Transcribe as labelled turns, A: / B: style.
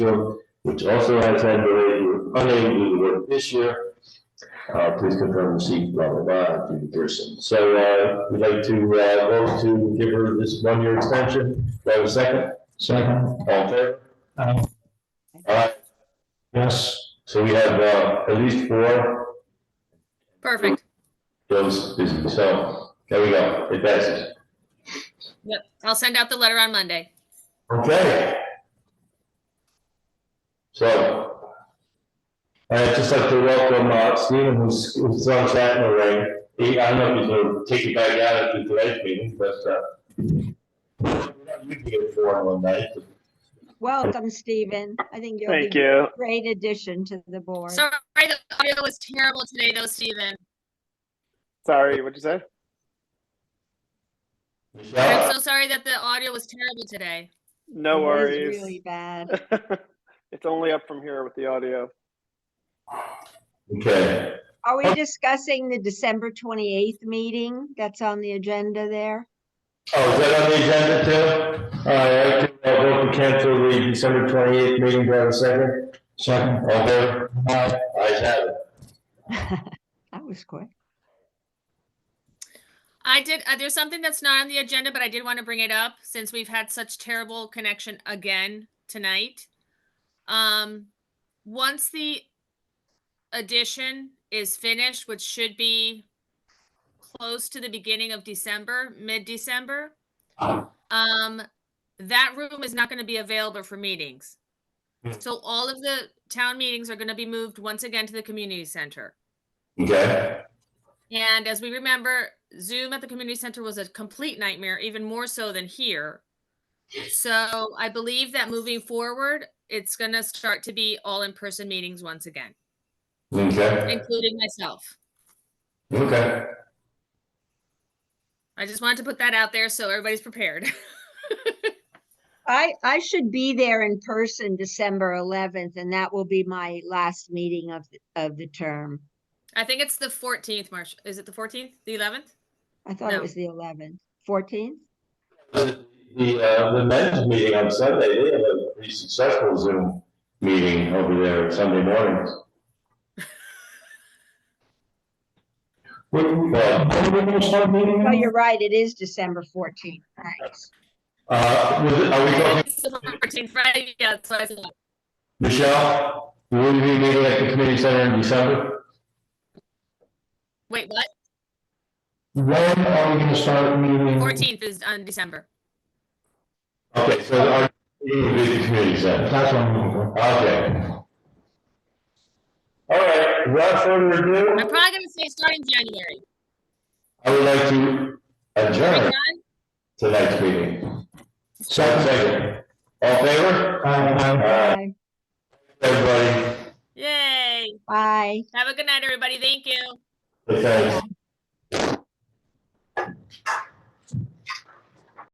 A: Field, which also has had delayed, were unable to work this year. Uh, please confirm receipt, blah, blah, blah, to the person. So, uh, we'd like to, uh, vote to give her this one-year extension. Do I have a second?
B: Second.
A: All in favor?
B: Aye.
A: All right,
B: Yes.
A: so we have, uh, at least four,
C: Perfect.
A: those, is- so, there we go, it passes.
C: Yep. I'll send out the letter on Monday.
A: Okay. So. I'd just like to welcome uh, Stephen, who's, who's on chat in the ring. He, I don't know if he's gonna take it back out at the today's meeting, but, uh. We can get four one night.
D: Welcome, Stephen. I think you'll
E: Thank
D: be a
E: you.
D: great addition to the board.
C: Sorry, the audio was terrible today though, Stephen.
E: Sorry, what'd you say?
C: I'm
A: Michelle,
C: so sorry that the audio was terrible today.
E: No
D: It was
E: worries.
D: Really bad.
E: It's only up from here with the audio.
A: okay,
D: Are we discussing the December 28th meeting that's on the agenda there?
A: oh, is that on the agenda too? All right, I'll vote to cancel the December twenty-eighth meeting, do I have a second?
B: Second.
A: All in favor? Aye. Ayes have it.
D: That was quick.
C: I did, uh, there's something that's not on the agenda, but I did want to bring it up since we've had such terrible connection again tonight. Um, once the addition is finished, which should be close to the beginning of December, mid-December, um, that room is not going to be available for meetings.
A: Hmm.
C: So all of the town meetings are going to be moved once again to the community center.
A: Okay,
C: And as we remember, Zoom at the community center was a complete nightmare, even more so than here. So I believe that moving forward, it's gonna start to be all in-person meetings once again,
A: okay,
C: including myself.
A: okay.
C: I just wanted to put that out there so everybody's prepared.
D: I, I should be there in person December 11th, and that will be my last meeting of, the- of the term.
C: I think it's the fourteenth, March. Is it the fourteenth, the eleventh?
D: I thought
C: No.
D: it was the 11th, 14th?
A: The, uh, the men's meeting on Sunday, they had a pretty successful Zoom meeting over there Sunday mornings.
B: What, what, we're gonna start meeting now?
D: Oh, you're right, it is December 14th. Thanks.
A: Uh, was it- are we talking,
C: It's the fourteenth, Friday, yeah, that's what I said.
A: Michelle, will you be meeting at the community center in December?
C: Wait, what?
B: When are we gonna start meeting?
A: Mm-hmm.
C: Fourteenth is on December.
A: Okay, so our meeting will be at the community center.
B: That's what I'm looking for.
A: Okay. All right, without further
C: I'm
A: ado,
C: probably gonna say starting January.
A: I would like to
C: Are we
A: adjourn
C: done?
A: tonight's meeting.
B: Second.
A: Second, second. All in favor? All
B: Aye, aye.
A: right,
D: Bye.
A: everybody.
C: Yay.
D: Bye.
C: Have a good night, everybody. Thank you.
A: Okay.